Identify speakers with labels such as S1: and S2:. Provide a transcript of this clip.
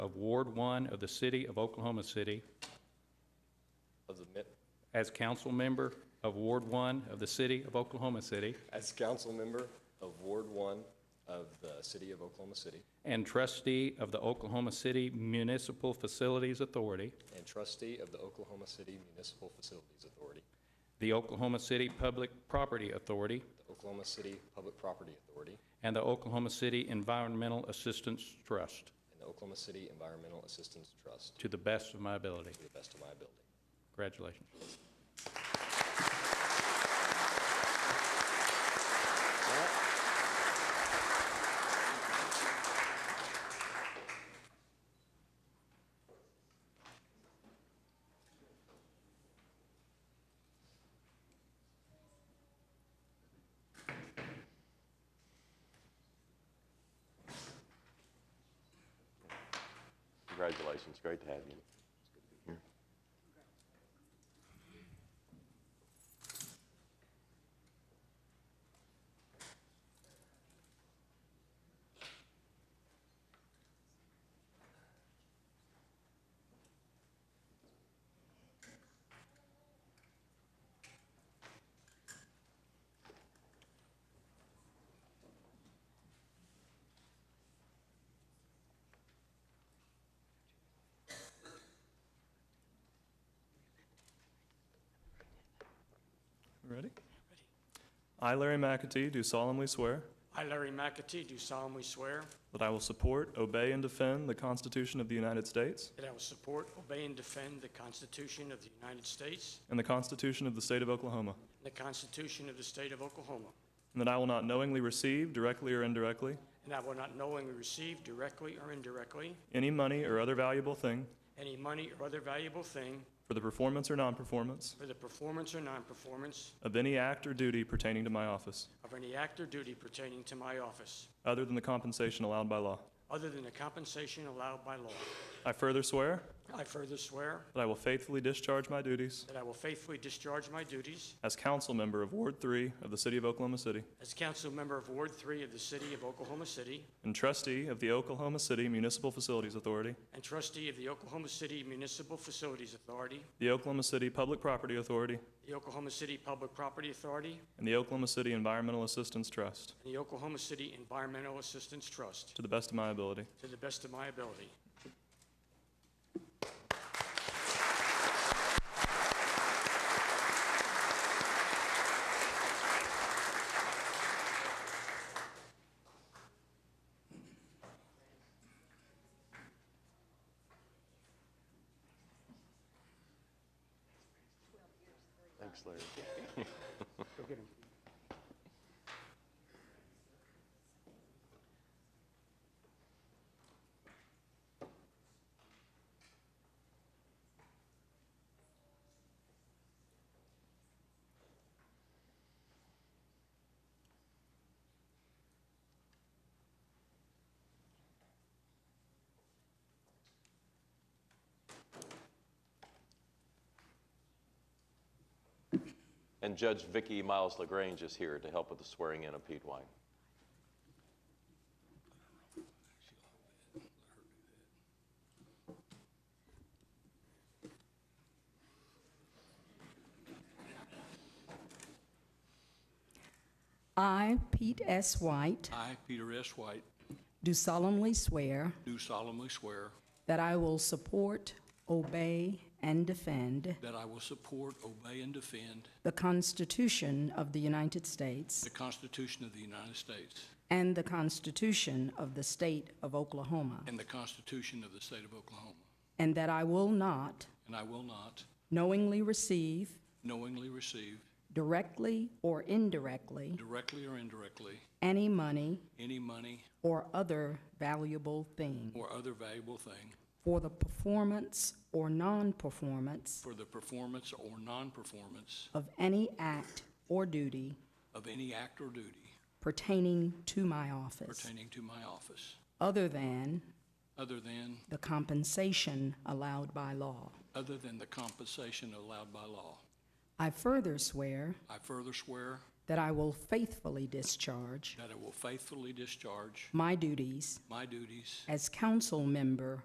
S1: Ward One of the City of Oklahoma City
S2: of the, mi-
S1: as council member of Ward One of the City of Oklahoma City
S2: as council member of Ward One of the City of Oklahoma City
S1: and trustee of the Oklahoma City Municipal Facilities Authority,
S2: and trustee of the Oklahoma City Municipal Facilities Authority,
S1: the Oklahoma City Public Property Authority,
S2: the Oklahoma City Public Property Authority,
S1: and the Oklahoma City Environmental Assistance Trust,
S2: and the Oklahoma City Environmental Assistance Trust
S1: to the best of my ability.
S2: to the best of my ability.
S1: Congratulations.
S3: Congratulations, great to have you.
S4: Ready? I, Larry McAtee, do solemnly swear
S5: I, Larry McAtee, do solemnly swear
S4: that I will support, obey, and defend the Constitution of the United States
S5: that I will support, obey, and defend the Constitution of the United States
S4: and the Constitution of the State of Oklahoma,
S5: and the Constitution of the State of Oklahoma,
S4: and that I will not knowingly receive, directly or indirectly,
S5: and I will not knowingly receive directly or indirectly
S4: any money or other valuable thing
S5: any money or other valuable thing
S4: for the performance or non-performance
S5: for the performance or non-performance
S4: of any act or duty pertaining to my office,
S5: of any act or duty pertaining to my office,
S4: other than the compensation allowed by law.
S5: other than the compensation allowed by law.
S4: I further swear
S5: I further swear
S4: that I will faithfully discharge my duties
S5: that I will faithfully discharge my duties
S4: as council member of Ward 3 of the City of Oklahoma City
S5: as council member of Ward 3 of the City of Oklahoma City
S4: and trustee of the Oklahoma City Municipal Facilities Authority
S5: and trustee of the Oklahoma City Municipal Facilities Authority
S4: the Oklahoma City Public Property Authority,
S5: the Oklahoma City Public Property Authority,
S4: and the Oklahoma City Environmental Assistance Trust,
S5: and the Oklahoma City Environmental Assistance Trust,
S4: to the best of my ability.
S5: to the best of my ability.
S3: Thanks, Larry. And Judge Vicky Miles LaGrange is here to help with the swearing in of Pete White.
S6: I, Pete S. White,
S7: I, Peter S. White,
S6: do solemnly swear
S7: do solemnly swear
S6: that I will support, obey, and defend
S7: that I will support, obey, and defend
S6: the Constitution of the United States
S7: the Constitution of the United States
S6: and the Constitution of the State of Oklahoma,
S7: and the Constitution of the State of Oklahoma,
S6: and that I will not
S7: and I will not
S6: knowingly receive,
S7: knowingly receive,
S6: directly or indirectly,
S7: directly or indirectly,
S6: any money
S7: any money
S6: or other valuable thing
S7: or other valuable thing
S6: for the performance or non-performance
S7: for the performance or non-performance
S6: of any act or duty
S7: of any act or duty
S6: pertaining to my office,
S7: pertaining to my office,
S6: other than
S7: other than,
S6: the compensation allowed by law.
S7: other than the compensation allowed by law.
S6: I further swear
S7: I further swear
S6: that I will faithfully discharge
S7: that I will faithfully discharge
S6: my duties
S7: my duties
S6: as council member